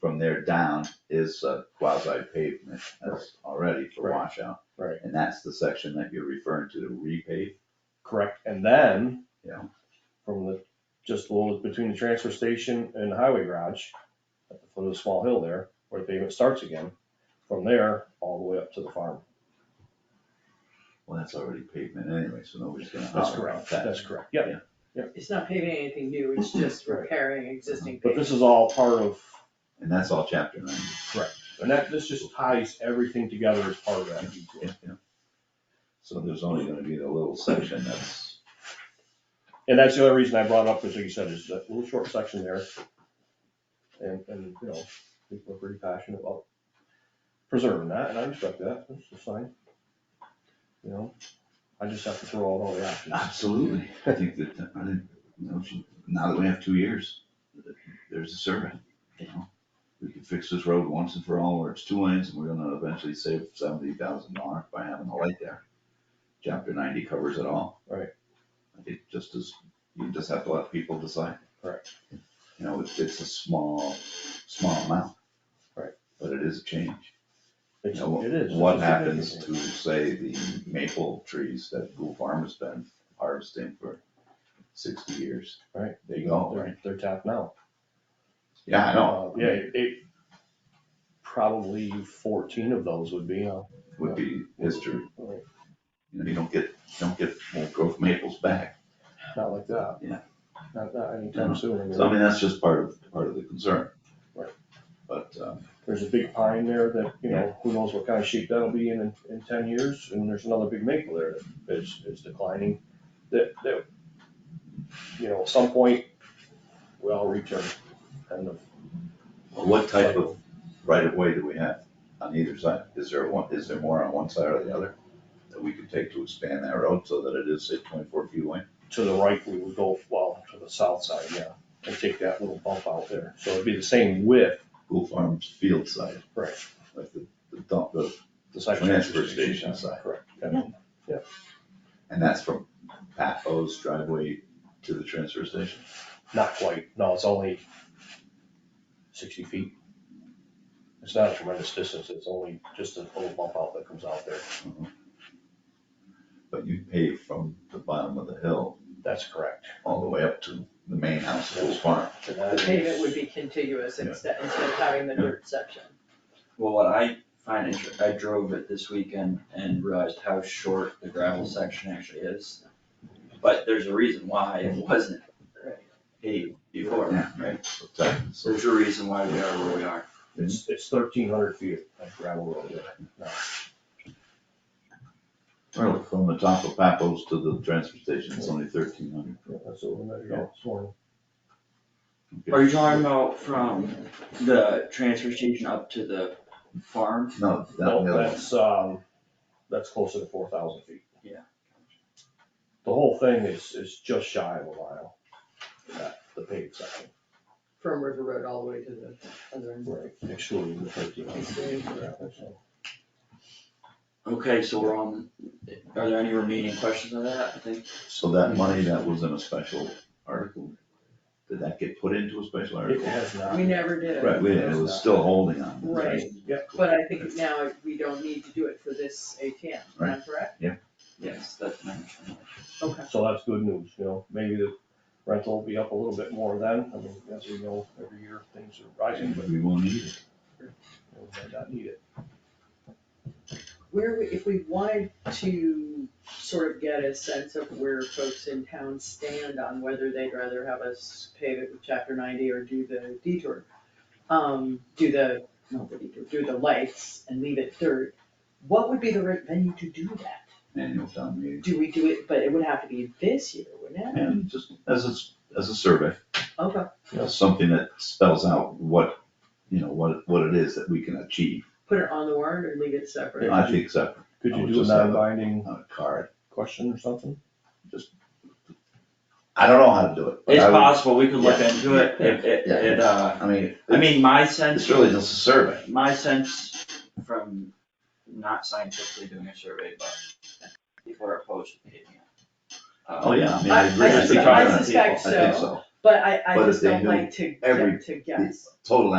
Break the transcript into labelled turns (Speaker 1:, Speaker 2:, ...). Speaker 1: from there down is a quasi pavement, that's already for
Speaker 2: Right.
Speaker 1: washout.
Speaker 2: Right.
Speaker 1: And that's the section that you're referring to, to repave,
Speaker 2: Correct, and then.
Speaker 1: Yeah.
Speaker 2: From the, just a little between the transfer station and the highway garage, at the foot of the small hill there, where the pavement starts again. From there, all the way up to the farm.
Speaker 1: well, that's already pavement anyway, so nobody's gonna
Speaker 2: That's
Speaker 1: holler about
Speaker 2: correct,
Speaker 1: that.
Speaker 2: that's correct, yeah,
Speaker 3: It's not paving anything new, it's just
Speaker 2: Right.
Speaker 3: repairing existing
Speaker 2: but
Speaker 3: pavement.
Speaker 2: this is all part of,
Speaker 1: And that's all chapter nine.
Speaker 2: and that, this just ties everything together as part of that.
Speaker 1: Yeah, yeah. So there's only gonna be the little section that's,
Speaker 2: And that's the other reason I brought it up, is like you said, is that little short section there. And, and, you know, people are pretty passionate about preserving that, and I respect that, that's just fine. You know, I just have to throw out all the options.
Speaker 1: absolutely, I think that, I didn't, know she- now that we have two years, there's a survey, you know? We could fix this road once and for all, where it's two lanes, and we're gonna eventually save seventy thousand dollars by having the light there. Chapter ninety covers it all.
Speaker 2: Right.
Speaker 1: I think just as, you just have to let people decide.
Speaker 2: Right.
Speaker 1: You know, it's, it's a small, small amount.
Speaker 2: Right.
Speaker 1: But it is a change.
Speaker 2: It's-
Speaker 1: You know, what-
Speaker 2: It is.
Speaker 1: What
Speaker 2: It's a significant
Speaker 1: happens to,
Speaker 2: thing.
Speaker 1: say, the maple trees that Gould Farm has been harvesting for sixty years?
Speaker 2: Right.
Speaker 1: They go, right?
Speaker 2: They're, they're tapped now.
Speaker 1: Yeah, I know.
Speaker 2: Uh, Yeah, it- it, probably fourteen of those would be, uh,
Speaker 1: Would be history.
Speaker 2: Right.
Speaker 1: You know, you don't get, you don't get more growth maples back.
Speaker 2: not like that.
Speaker 1: Yeah.
Speaker 2: Not, not anytime soon. I mean,
Speaker 1: So I mean, that's just part of, part of the concern.
Speaker 2: Right.
Speaker 1: But, um,
Speaker 2: There's a big pine there that, you know, who knows what kind of shape that'll be in, in, in ten years, and there's another big maple there that is, is declining, that, that, you know, at some point, we all return, kind of.
Speaker 1: what type of right of way do we have on either side? Is there one, is there more on one side or the other that we could take to expand that road so that it is, say, twenty-four feet away?
Speaker 2: To the right, we would go, well, to the south side, yeah, and take that little bump out there, so it'd be the same width,
Speaker 1: Gould Farm's field side.
Speaker 2: right,
Speaker 1: like the, the dump, the,
Speaker 2: the side.
Speaker 1: Transfer station side.
Speaker 2: Correct, and
Speaker 1: and that's from Pat O's driveway to the transfer station.
Speaker 2: not quite, no, it's only sixty feet. It's not a tremendous distance, it's only just a little bump out that comes out there.
Speaker 1: But you pave from the bottom of the hill
Speaker 2: That's correct.
Speaker 1: all the way up to the main house of Old Farm.
Speaker 2: And
Speaker 3: The
Speaker 2: that
Speaker 3: pavement would
Speaker 2: is,
Speaker 3: be contiguous
Speaker 1: Yeah.
Speaker 3: instead, instead of having the dirt section.
Speaker 4: Well, what I find inter- I drove it this weekend and realized how short the gravel section actually is. But there's a reason why it wasn't
Speaker 3: Right.
Speaker 4: paved before.
Speaker 1: Yeah, right. So that- so
Speaker 4: There's a reason why we are where we are.
Speaker 1: it's-
Speaker 2: it's, it's thirteen hundred feet of gravel road there.
Speaker 1: well, From the top of Pat O's to the transfer station, it's only thirteen hundred.
Speaker 2: Yeah, That's what we measured out this morning.
Speaker 4: Are you talking about from the transfer station up to the farm?
Speaker 1: No, that, the
Speaker 4: Oh,
Speaker 2: No,
Speaker 1: other one.
Speaker 2: that's, um, that's closer to four thousand feet.
Speaker 4: Yeah.
Speaker 2: The whole thing is, is just shy of a mile, that, the paved section,
Speaker 3: From River Road all the way to the other end.
Speaker 2: right, excluding the thirteen hundred. gravel, so.
Speaker 4: Okay, so we're on, are there any remaining questions on that, I think?
Speaker 1: so that money that was in a special article, did that get put into a special
Speaker 2: It
Speaker 1: article?
Speaker 2: has not.
Speaker 3: We never did it,
Speaker 1: Right, we- it was still holding on.
Speaker 3: Right.
Speaker 2: Yeah,
Speaker 3: but I think now we don't need to do it for this ATM, am I
Speaker 1: Right.
Speaker 3: correct?
Speaker 4: Yes, that's my understanding.
Speaker 3: Okay.
Speaker 2: so that's good news, you know, maybe the rental will be up a little bit more then, I mean, as we know, every year things are rising, but
Speaker 1: But we won't need it.
Speaker 2: we might not need it.
Speaker 3: Where, we- if we wanted to sort of get a sense of where folks in town stand on whether they'd rather have us pave it with chapter ninety or do the detour, um, do the, not the detour, do the lights and leave it dirt, what would be the right venue to do that?
Speaker 1: Annual town meeting.
Speaker 3: Do we do it, but it would have to be this year, wouldn't it?
Speaker 1: And just as a, as a survey,
Speaker 3: Okay,
Speaker 1: you know, something that spells out what, you know, what, what it is that we can achieve.
Speaker 3: put it on the warrant or leave it separate?
Speaker 1: I think separate,
Speaker 2: Could
Speaker 1: I
Speaker 2: you
Speaker 1: would
Speaker 2: do a
Speaker 1: just have a-
Speaker 2: non-binding
Speaker 1: on a card.
Speaker 2: question or something?
Speaker 1: I don't know how to do it. but
Speaker 4: It's
Speaker 1: I would-
Speaker 4: possible, we could look
Speaker 1: Yeah.
Speaker 4: into it, if, it,
Speaker 1: Yeah.
Speaker 4: it, uh,
Speaker 1: I mean,
Speaker 4: I mean, my sense.
Speaker 1: it's really just a survey.
Speaker 4: My sense from not scientifically doing a survey, but people are opposed to paving it. Uh,
Speaker 1: Oh, yeah, I mean,
Speaker 3: I-
Speaker 1: I agree.
Speaker 3: I
Speaker 1: with you.
Speaker 4: suspect- I
Speaker 1: Talking to
Speaker 3: suspect
Speaker 1: people, I think so.
Speaker 3: But I, I
Speaker 1: But if
Speaker 3: just
Speaker 1: they
Speaker 3: don't
Speaker 1: knew
Speaker 3: like to,
Speaker 1: every-
Speaker 3: to guess.
Speaker 1: Total